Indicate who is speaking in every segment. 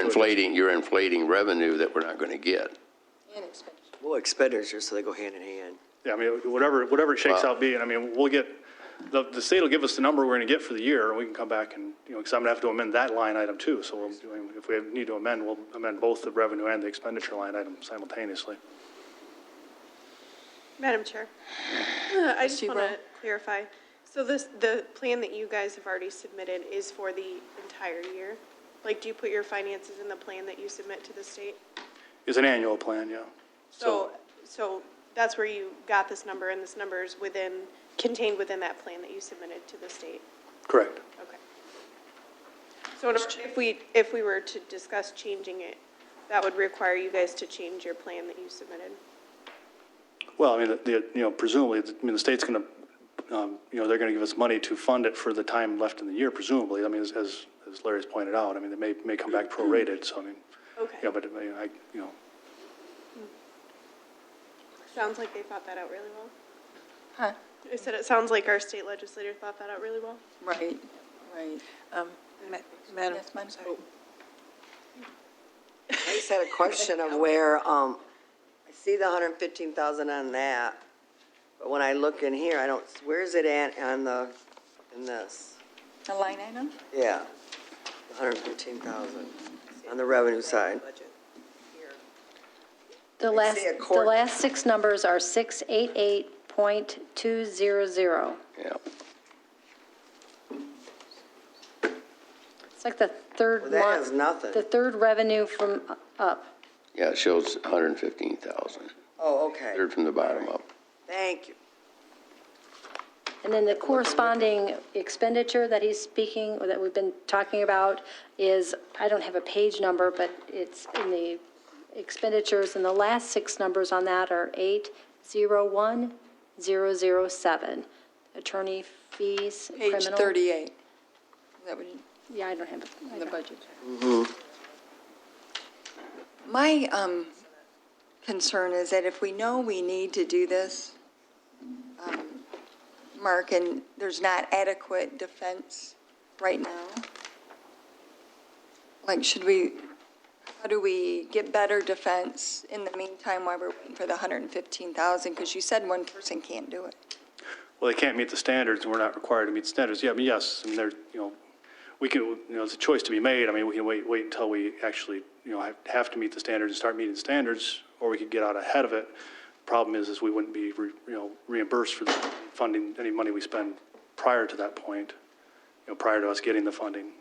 Speaker 1: inflating, you're inflating revenue that we're not going to get.
Speaker 2: And expenditure.
Speaker 3: Well, expenditures, so they go hand in hand.
Speaker 4: Yeah, I mean, whatever, whatever it shakes out being, I mean, we'll get, the, the state will give us the number we're going to get for the year, and we can come back and, you know, because I'm going to have to amend that line item too. So we'll- if we need to amend, we'll amend both the revenue and the expenditure line item simultaneously.
Speaker 5: Madam Chair, I just
Speaker 2: Trustee
Speaker 5: want to
Speaker 2: Rowe.
Speaker 5: clarify. So this, the plan that you guys have already submitted is for the entire year? Like, do you put your finances in the plan that you submit to the state?
Speaker 4: It's an annual plan, yeah.
Speaker 5: So, so that's where you got this number, and this number is within, contained within that plan that you submitted to the state?
Speaker 4: Correct.
Speaker 5: Okay. So in order- if we, if we were to discuss changing it, that would require you guys to change your plan that you submitted?
Speaker 4: Well, I mean, the- the, you know, presumably, I mean, the state's going to, you know, they're going to give us money to fund it for the time left in the year, presumably. I mean, as- as, as Larry's pointed out, I mean, they may, may come back prorated, so I mean,
Speaker 5: Mm-hmm. Okay.
Speaker 4: yeah, but, I mean, I, you know,
Speaker 5: Sounds like they thought that out really well.
Speaker 2: Huh,
Speaker 5: I said it sounds like our state legislator thought that out really well.
Speaker 2: right, right. Oh.
Speaker 6: Um, ma- Madam,
Speaker 2: Yes, ma'am.
Speaker 6: sorry. I just had a question of where, um, I see the 115,000 on that, but when I look in here, I don't, where is it at on the, in this?
Speaker 2: A line item?
Speaker 6: Yeah, 115,000 on the revenue side.
Speaker 7: The
Speaker 6: I
Speaker 7: last,
Speaker 6: see a
Speaker 7: the
Speaker 6: court-
Speaker 7: last six numbers are 688.200.
Speaker 1: Yeah.
Speaker 7: It's like the third
Speaker 6: Well,
Speaker 7: one.
Speaker 6: that has nothing.
Speaker 7: The third revenue from up.
Speaker 1: Yeah, it shows 115,000,
Speaker 6: Oh, okay,
Speaker 1: third from the bottom up.
Speaker 6: thank you.
Speaker 7: And then the corresponding expenditure that he's speaking, or that we've been talking about, is, I don't have a page number, but it's in the expenditures, and the last six numbers on that are 801007. Attorney fees,
Speaker 2: Page
Speaker 7: criminal.
Speaker 2: 38. Is that what you,
Speaker 7: Yeah, I don't have, it. I
Speaker 2: the
Speaker 7: don't-
Speaker 2: budget? My um, concern is that if we know we need to do this, um, Mark, and there's not adequate defense right now, like, should we, how do we get better defense in the meantime while we're waiting for the 115,000? Because you said one person can't do it.
Speaker 4: well, they can't meet the standards, and we're not required to meet standards. Yeah, I mean, yes, I mean, there, you know, we can, you know, it's a choice to be made. I mean, we can wait, wait until we actually, you know, have- have to meet the standards and start meeting the standards, or we could get out ahead of it. Problem is, is we wouldn't be, re- you know, reimbursed for the funding, any money we spend prior to that point, you know, prior to us getting the funding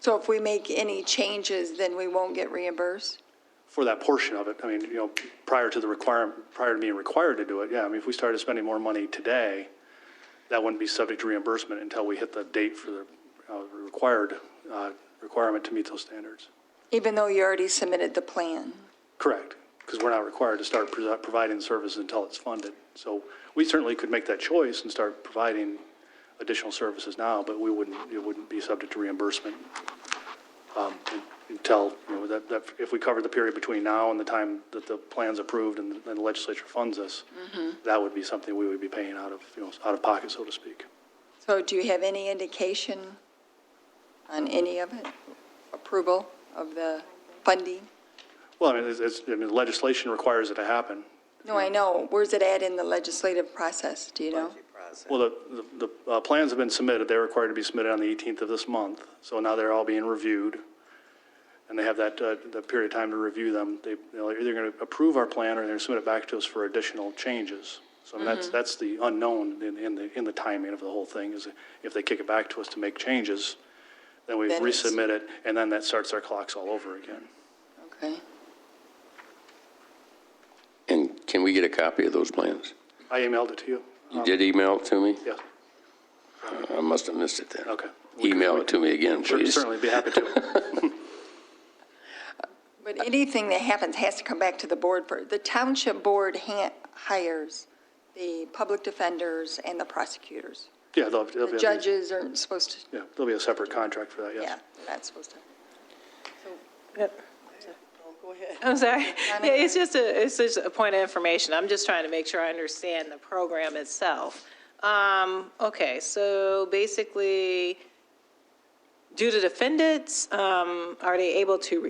Speaker 2: So if we make any changes, then we won't get reimbursed?
Speaker 4: for that portion of it. I mean, you know, prior to the requirement, prior to being required to do it, yeah, I mean, if we started spending more money today, that wouldn't be subject to reimbursement until we hit the date for the uh, required, uh, requirement to meet those standards.
Speaker 2: Even though you already submitted the plan?
Speaker 4: Correct, because we're not required to start pro- providing services until it's funded. So we certainly could make that choice and start providing additional services now, but we wouldn't, it wouldn't be subject to reimbursement um, until, you know, that, that, if we covered the period between now and the time that the plan's approved and the- and the legislature funds us, that would be something we would be paying out of, you know, out of pocket, so to speak.
Speaker 2: So do you have any indication on any of it? Approval of the funding?
Speaker 4: Well, I mean, it's- it's, I mean, legislation requires it to happen.
Speaker 2: No, I know. Where's it at in the legislative process? Do you know?
Speaker 6: Budget process.
Speaker 4: Well, the, the, the uh, plans have been submitted, they're required to be submitted on the 18th of this month, so now they're all being reviewed, and they have that, uh, the period of time to review them. They, they're either going to approve our plan, or they're going to submit it back to us for additional changes. So I mean,
Speaker 2: Mm-hmm.
Speaker 4: that's, that's the unknown in, in the, in the timing of the whole thing, is if they kick it back to us to make changes, then we
Speaker 2: Then it's-
Speaker 4: resubmit it, and then that starts our clocks all over again.
Speaker 2: Okay.
Speaker 1: And can we get a copy of those plans?
Speaker 4: I emailed it to you?
Speaker 1: You did email it to me?
Speaker 4: Um, Yeah,
Speaker 1: I must have missed it then.
Speaker 4: okay.
Speaker 1: Email it to me again,
Speaker 4: Sure,
Speaker 1: please.
Speaker 4: Certainly be happy to.
Speaker 2: But anything that happens has to come back to the board for, the township board ha- hires the public defenders and the prosecutors.
Speaker 4: Yeah, they'll, they'll be.
Speaker 2: The judges aren't supposed to,
Speaker 4: Yeah, there'll be a separate contract for that, yes.
Speaker 2: yeah, they're not supposed to.
Speaker 8: I'm sorry. Yeah, it's just a, it's just a point of information. I'm just trying to make sure I understand the program itself. Um, okay, so basically, do the defendants, um, are they able to